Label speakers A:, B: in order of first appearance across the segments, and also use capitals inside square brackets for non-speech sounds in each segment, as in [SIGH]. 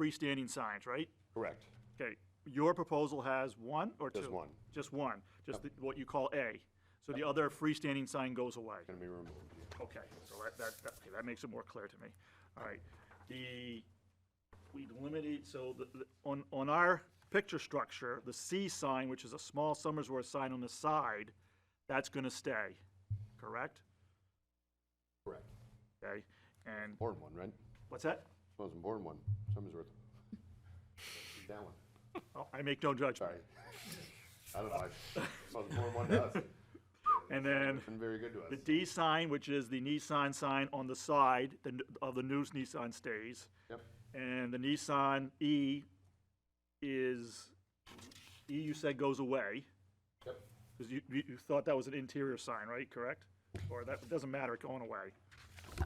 A: freestanding signs, right?
B: Correct.
A: Okay, your proposal has one or two?
B: Just one.
A: Just one, just the- what you call A. So the other freestanding sign goes away.
B: Going to be removed.
A: Okay, so that, that, that- okay, that makes it more clear to me. All right, the, we limited, so the, the- on, on our picture structure, the C sign, which is a small Summersworth sign on the side, that's gonna stay, correct?
B: Correct.
A: Okay, and,
B: Born one, right?
A: what's that?
B: Wasn't born one. Summersworth. That one.
A: Oh, I make no judgment.
B: Sorry. I don't know. I wasn't born one to us.
A: And then
B: Been very good to us.
A: the D sign, which is the Nissan sign on the side the n- of the news Nissan stays.
B: Yep.
A: And the Nissan E is, E you said goes away.
B: Yep.
A: Because you, you you thought that was an interior sign, right, correct? Or that, it doesn't matter, it's going away.
C: It's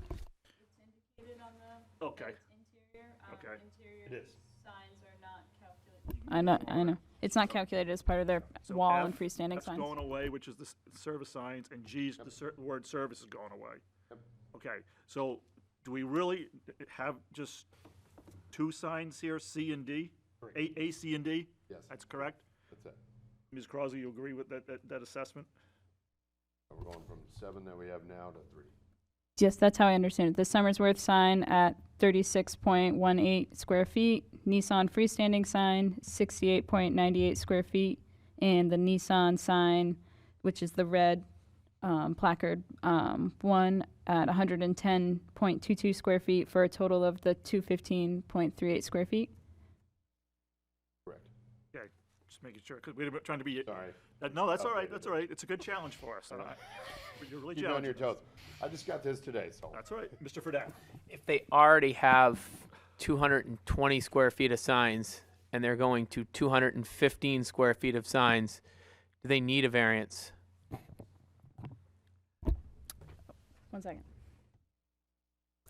C: indicated on the
A: Okay,
C: interior. um,
A: Okay.
C: Interior
B: is.
C: signs are not calculated.
D: I know, I know. It's not calculated as part of their wall and
A: F-
D: freestanding
A: F's
D: signs.
A: going away, which is the s- service signs, and G's, the ser- word service is going away.
B: Yep.
A: Okay, so do we really have just two signs here, C and D? A, A, C, and D?
B: Yes.
A: That's correct?
B: That's it.
A: Ms. Crosby, you agree with that, that, that assessment?
B: So We're going from seven that we have now to three.
D: Yes, that's how I understand it. The Summersworth sign at thirty-six point one eight square feet, Nissan freestanding sign, sixty-eight point ninety-eight square feet, and the Nissan sign, which is the red, um, placard, um, one at hundred and ten point two-two square feet for a total of the two fifteen point three eight square feet.
B: Correct.
A: Okay, just making sure, because we're trying to be,
B: Sorry.
A: Uh, no, that's all right, that's all right, it's a good challenge for us, and I- you're really
B: Keep you on your
A: challenging us.
B: toes. I just got this today, so.
A: That's all right, Mr. Fredette.
E: if they already have 220 square feet of signs and they're going to 215 square feet of signs, do they need a variance?
D: One second.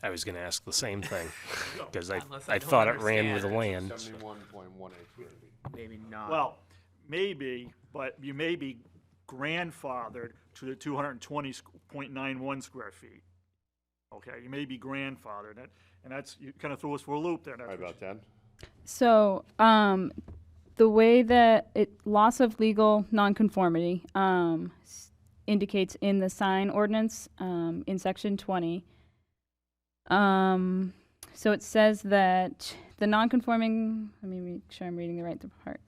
F: I was going to ask the
E: [LAUGHS]
F: same thing because I,
E: Unless I
F: I
E: don't
F: thought it ran with the
E: understand.
F: land.
B: Seventy-one point one eight square feet.
E: Maybe not.
A: Well, maybe, but you may be grandfathered to the two hundred and twenty point nine one square feet. Okay, you may be grandfathered, and- and that's, you kind of threw us for a loop there. that's
B: Right
A: what
B: about that?
D: So, um, the way that it, loss of legal nonconformity, um, s- indicates in the sign ordinance, um, in section twenty. Um, so it says that the nonconforming, let me make sure I'm reading the right part.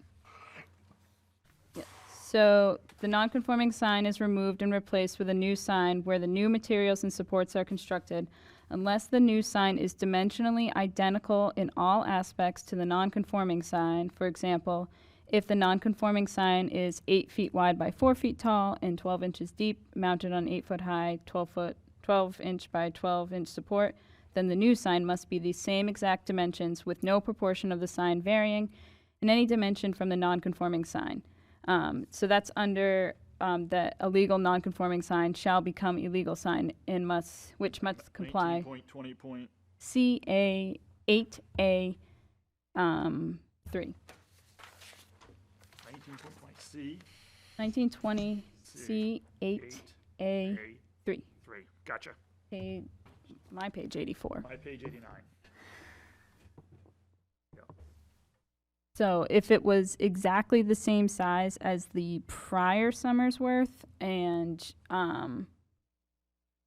D: Yeah. So the nonconforming sign is removed and replaced with a new sign where the new materials and supports are constructed unless the new sign is dimensionally identical in all aspects to the nonconforming sign. For example, if the nonconforming sign is eight feet wide by four feet tall and twelve inches deep, mounted on eight foot high, twelve foot, twelve inch by twelve inch support, then the new sign must be the same exact dimensions with no proportion of the sign varying in any dimension from the nonconforming sign. Um, so that's under um, that a legal nonconforming sign shall become illegal sign and must which must comply.
A: 19.20 point-
D: C A eight A um, three.
A: 19.20, C,
D: Nineteen twenty C eight
A: eight,
D: A
A: A,
D: three.
A: three, gotcha,
D: Page, my page eighty four.
A: my page eighty-nine.
D: So if it was exactly the same size as the prior summer's worth and um,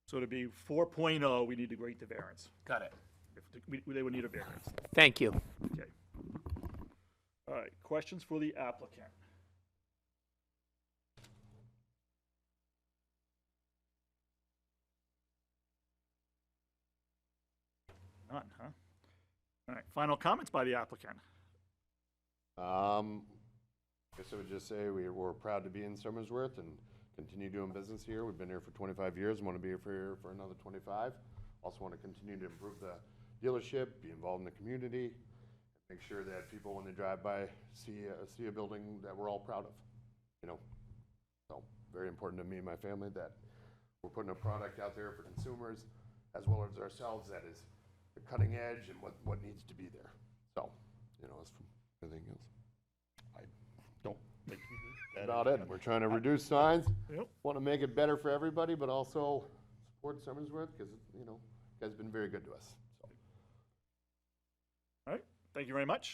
A: So to be four oh, we need to grant the variance,
E: Got it.
A: if, the- we- they would need a variance,
E: Thank you.
A: okay. All right, questions for the applicant? None, huh? All right, final comments by the applicant.
B: Um, guess I would just say we, we're proud to be in Somersworth and continue doing business here. We've been here for twenty-five years and want to be here for, here for another twenty-five. Also want to continue to improve the dealership, be involved in the community, make sure that people, when they drive by, see, a- see a building that we're all proud of, you know? So, very important to me and my family that we're putting a product out there for consumers as well as ourselves that is the cutting edge and what, what needs to be there. So, you know, as for anything else. I don't think that's about it. We're trying to reduce signs,
A: Yep.
B: want to make it better for everybody, but also support Summersworth because, you know, you guys been very good to us.
A: All right, Thank you very much.